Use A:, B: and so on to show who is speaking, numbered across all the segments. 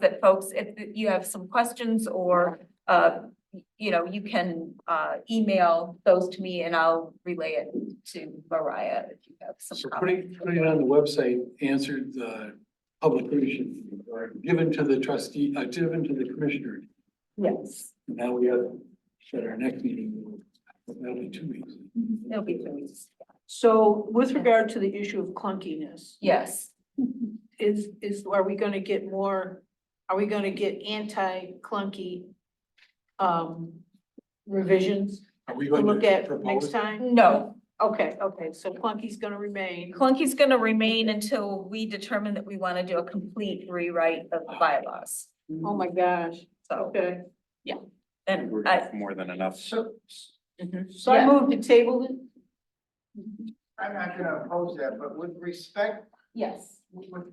A: that folks, if you have some questions or, uh, you know, you can, uh, email those to me and I'll relay it to Mariah if you have some
B: So
A: comments.
B: putting, putting it on the website answered the publication or given to the trustee, uh, given to the commissioner.
A: Yes,
B: And Now we have, at our next meeting, that'll be two weeks.
A: it'll be two weeks.
C: So with regard to the issue of clunkiness,
A: Yes,
C: is, is, are we gonna get more, are we gonna get anti-clunky um, revisions
B: Are we
C: to
B: going
C: look
B: to
C: at next
B: propose?
C: time?
A: no,
C: Okay, okay, so clunky's gonna remain.
A: Clunky's gonna remain until we determine that we wanna do a complete rewrite of the bylaws.
C: Oh my gosh,
A: So,
C: okay.
A: and I,
D: More than enough.
E: So,
C: So I
A: Yeah.
C: move to table it?
E: I'm not gonna oppose that, but with respect,
A: yes.
E: with, with-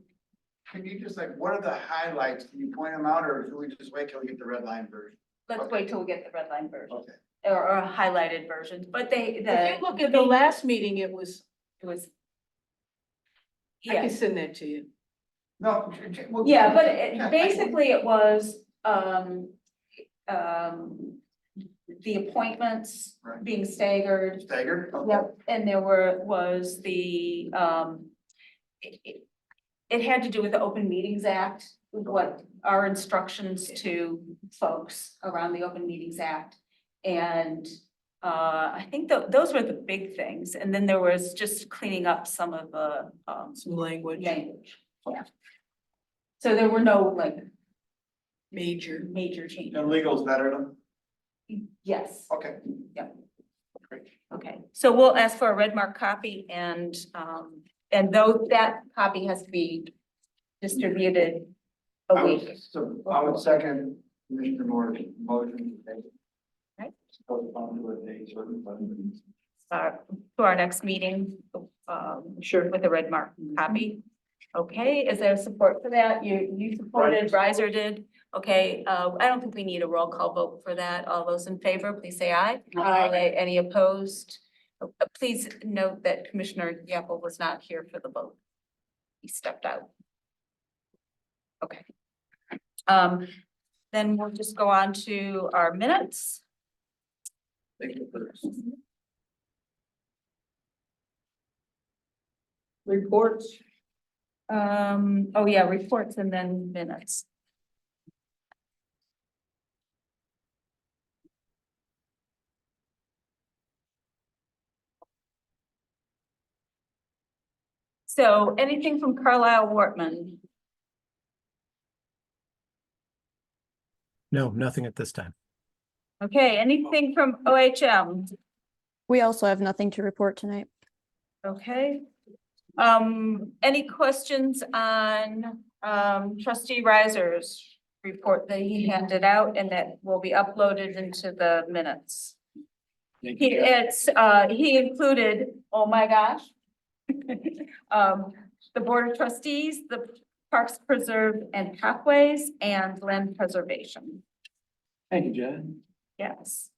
E: can you just like, what are the highlights? Can you point them out or do we just wait till we get the red line version?
A: Let's wait till we get the red line version
E: Okay.
A: or, or highlighted versions, but they,
C: If
A: the,
C: you look at the last meeting, it was,
A: it was.
C: I
A: Yes.
C: can send that to you.
E: No. j- j- well,
A: Yeah, but it-
E: yeah, I-
A: basically it was, um, um, the appointments
E: Right.
A: being staggered.
E: Staggered? Okay.
A: And there were, was the, um, it, it- it had to do with the Open Meetings Act, what our instructions to folks around the Open Meetings Act. And, uh, I think tho- those were the big things. And then there was just cleaning up some of the, um,
C: Some language,
A: language. Yeah. So there were no like
C: major.
A: major changes.
E: And legal's better than,
A: Yes,
E: okay.
A: okay. So we'll ask for a red mark copy and, um, and though that copy has to be distributed a
E: I would-
A: week.
E: So I would second Commissioner Moore's motion.
A: Right.
E: Postpone to a date certain, but-
A: uh, to our next meeting, um,
C: Sure.
A: with a red mark copy. Okay, is there support for that? You, you supported, Riser did. Okay, uh, I don't think we need a roll call vote for that. All those in favor, please say aye. Aye. Any opposed? Uh, uh, Please note that Commissioner Yapple was not here for the vote. He stepped out. Okay. Um, then we'll just go on to our minutes.
E: Thank you for this.
C: Reports,
A: Um, oh yeah, reports and then minutes. So anything from Carlisle Wortman?
F: No, nothing at this time.
A: Okay, anything from OHM?
G: We also have nothing to report tonight.
A: Okay. Um, any questions on, um, trustee Riser's report that he handed out and that will be uploaded into the minutes?
B: Thank
A: He,
B: you.
A: it's, uh, he included, oh my gosh. Um, the Board of Trustees, the Parks Preserve and Pathways and Land Preservation,
B: Thank you, John.
A: yes.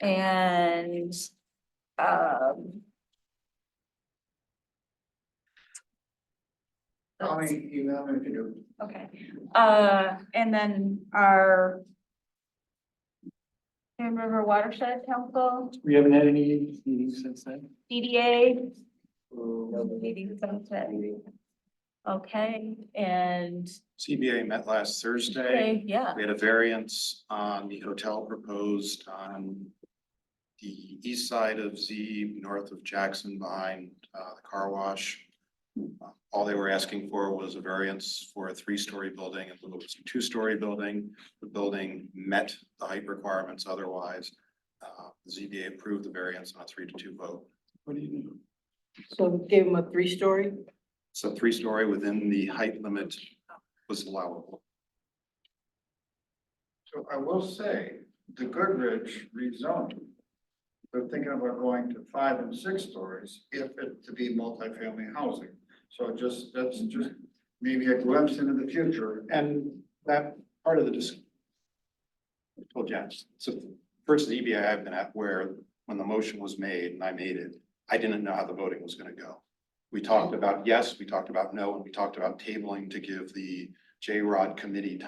A: And, um.
E: How many email me if you do?
A: Okay, uh, and then our. Grand River Watershed Council,
B: We haven't had any meetings since then.
A: DDA,
E: Uh,
A: meeting sunset. Okay, and,
D: CBA met last Thursday.
A: okay, yeah,
D: We had a variance on the hotel proposed on the east side of Z, north of Jackson behind uh, the car wash. Uh, All they were asking for was a variance for a three-story building and it was a two-story building. The building met the height requirements otherwise. Uh, ZBA approved the variance on a three to two vote.
B: What do you do?
C: so we gave them a three-story.
D: So three-story within the height limit was allowable.
E: So I will say, the Goodrich rezoned. They're thinking about going to five and six stories if it to be multifamily housing. So just, that's just maybe a glimpse into the future.
D: And that part of the dis- I told you, so first the EBI I've been at where when the motion was made and I made it, I didn't know how the voting was gonna go. We talked about yes, we talked about no, and we talked about tabling to give the J-Rod committee